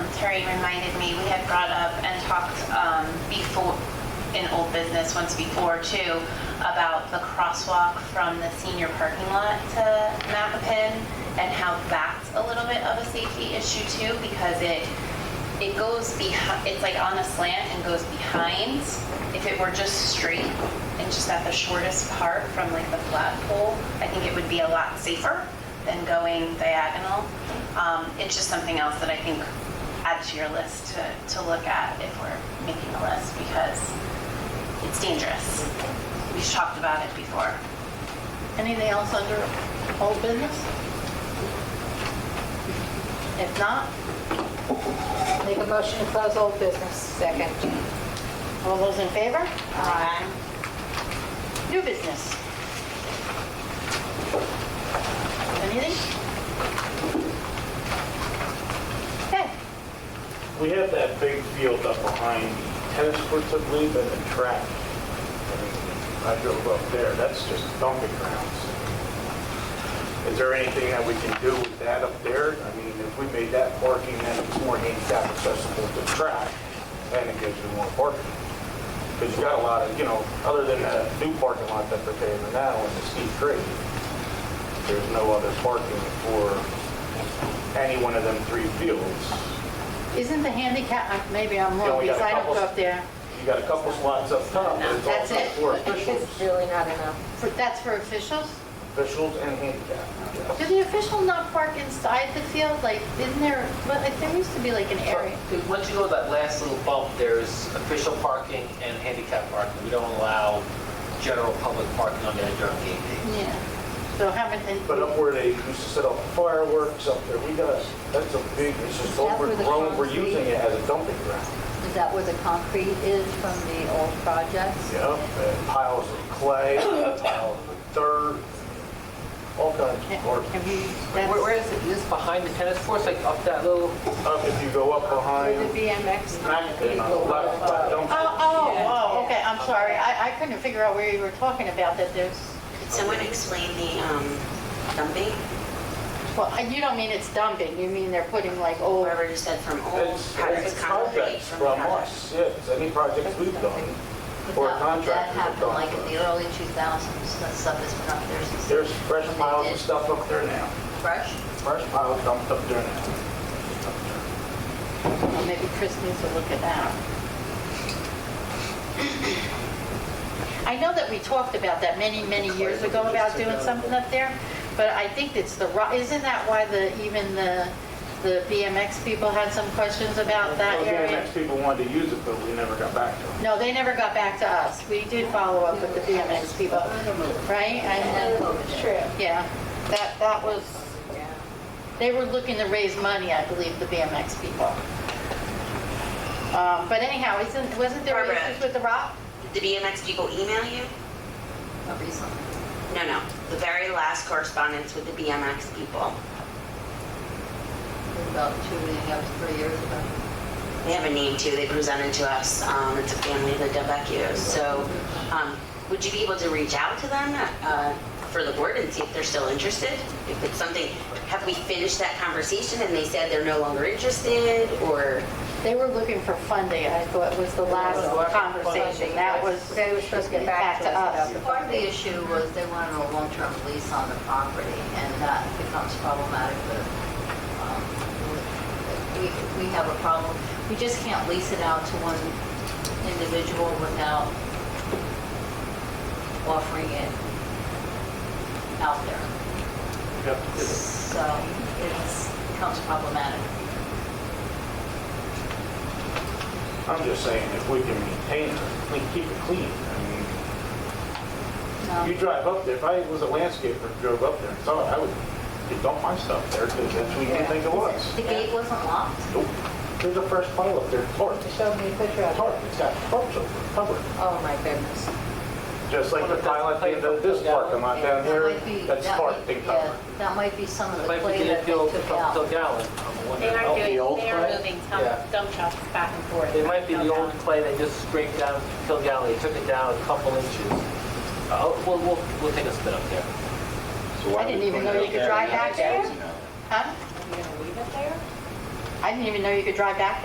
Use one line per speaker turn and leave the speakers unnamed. Carrie reminded me, we had brought up and talked um, before, in old business once before too, about the crosswalk from the senior parking lot to Mappapin and how that's a little bit of a safety issue too because it, it goes behind, it's like on a slant and goes behind. If it were just straight and just at the shortest part from like the flat pole, I think it would be a lot safer than going diagonal. Um, It's just something else that I think adds to your list to, to look at if we're making a list because it's dangerous. We've talked about it before.
Anything else under old business? If not,
Make a motion to close old business. Second.
all those in favor? Aye. New business? Anything? Okay,
We have that big field up behind tennis courts, I believe, and the track. I drove up there, that's just dumping grounds. Is there anything that we can do with that up there? I mean, if we made that parking, then it's more handicap accessible to track, and it gives you more parking. Because you got a lot of, you know, other than that new parking lot that they're paving now in the steep grade, there's no other parking for any one of them three fields.
isn't the handicap, uh, maybe I'm
Yeah,
wrong,
we got
because
a
I don't go
couple-
up there.
You got a couple slots up top, but it's
That's
also
it.
for officials,
It's really not enough.
For- That's for officials?
officials and handicap.
Did the official not park inside the field? Like, isn't there, but like, there used to be like an area.
Once you go to that last little bump, there's official parking and handicap parking. We don't allow general public parking on there during game day.
Yeah. So how many, and-
But up where they used to set up fireworks up there, we got, that's a big, it's just
That's where the
overgrown, we're
concrete-
using it as a dumping ground.
Is that where the concrete is from the old projects?
Yep, and piles of clay, piles of dirt, all kinds of
have
garbage.
you,
Where where
that's,
is it? Is this behind the tennis courts, like up that little?
Up if you go up behind,
BMX.
Mackin on the left, that dump-
oh, oh, oh, okay, I'm sorry. I, I couldn't figure out where you were talking about that there's,
Could someone explain the um, dumping?
well, I- you don't mean it's dumping, you mean they're putting like old,
Whoever just said from old
It's
products,
it's
concrete
contracts
from
from
products.
us, yeah, it's any projects we've done, or contractors
That
have
happened
done.
like in the early 2000s, that stuff has been up there since.
There's fresh
when they
piles
did
of stuff up there now.
Fresh?
Fresh piles dumped up there now.
well, maybe Chris needs to look at that. I know that we talked about that many, many years ago about doing something up there, but I think it's the, ro- isn't that why the, even the, the BMX people had some questions about that
Well,
area?
BMX people wanted to use it, but we never got back to them.
No, they never got back to us. We did follow up with the BMX people, right? And, uh, Yeah, that, that was, they were looking to raise money, I believe, the BMX people. Um, But anyhow, isn't, wasn't there
Barbara.
issues with the rock?
Did the BMX people email you?
A reason.
No, no. The very last correspondence with the BMX people.
About two, maybe up to three years ago.
They have a name too. They presented to us. Um, it's a family of the Delvecchios. So, um, would you be able to reach out to them uh, for the board and see if they're still interested? If it's something, have we finished that conversation and they said they're no longer interested, or
They were looking for funding, I thought was the last conversation. That was.
They were supposed to get back to us about
Part of the issue was they wanted a long-term lease on the property, and that becomes problematic with, um, with- we, we have a problem. We just can't lease it out to one individual without offering it out there. So it's, becomes problematic.
I'm just saying, if we can maintain it, we can keep it clean. I mean, You drive up there, if I was a landscaper and drove up there and saw it, I would dump my stuff there because that's what you think it was.
The gate wasn't locked.
Nope. There's a fresh pile up there, tarp,
Show me a picture of
tarp, it's got tarps over, it, covered.
Oh, my goodness.
Just like the pile at the end of this parking lot down
That
here,
might be-
that's
that
tarped
might-
and
yeah,
covered.
That might be some of the
Like we
clay
did
that
it
they
till,
took
till
out.
Gallon. I'm wondering about the old clay. Yeah.
dump trucks back and forth.
It might be the old clay they just scraped down Kill Galley, took it down a couple inches. Uh, We'll, we'll, we'll take a spin up there.
I didn't even know you could drive back there. Huh? I didn't even know you could drive back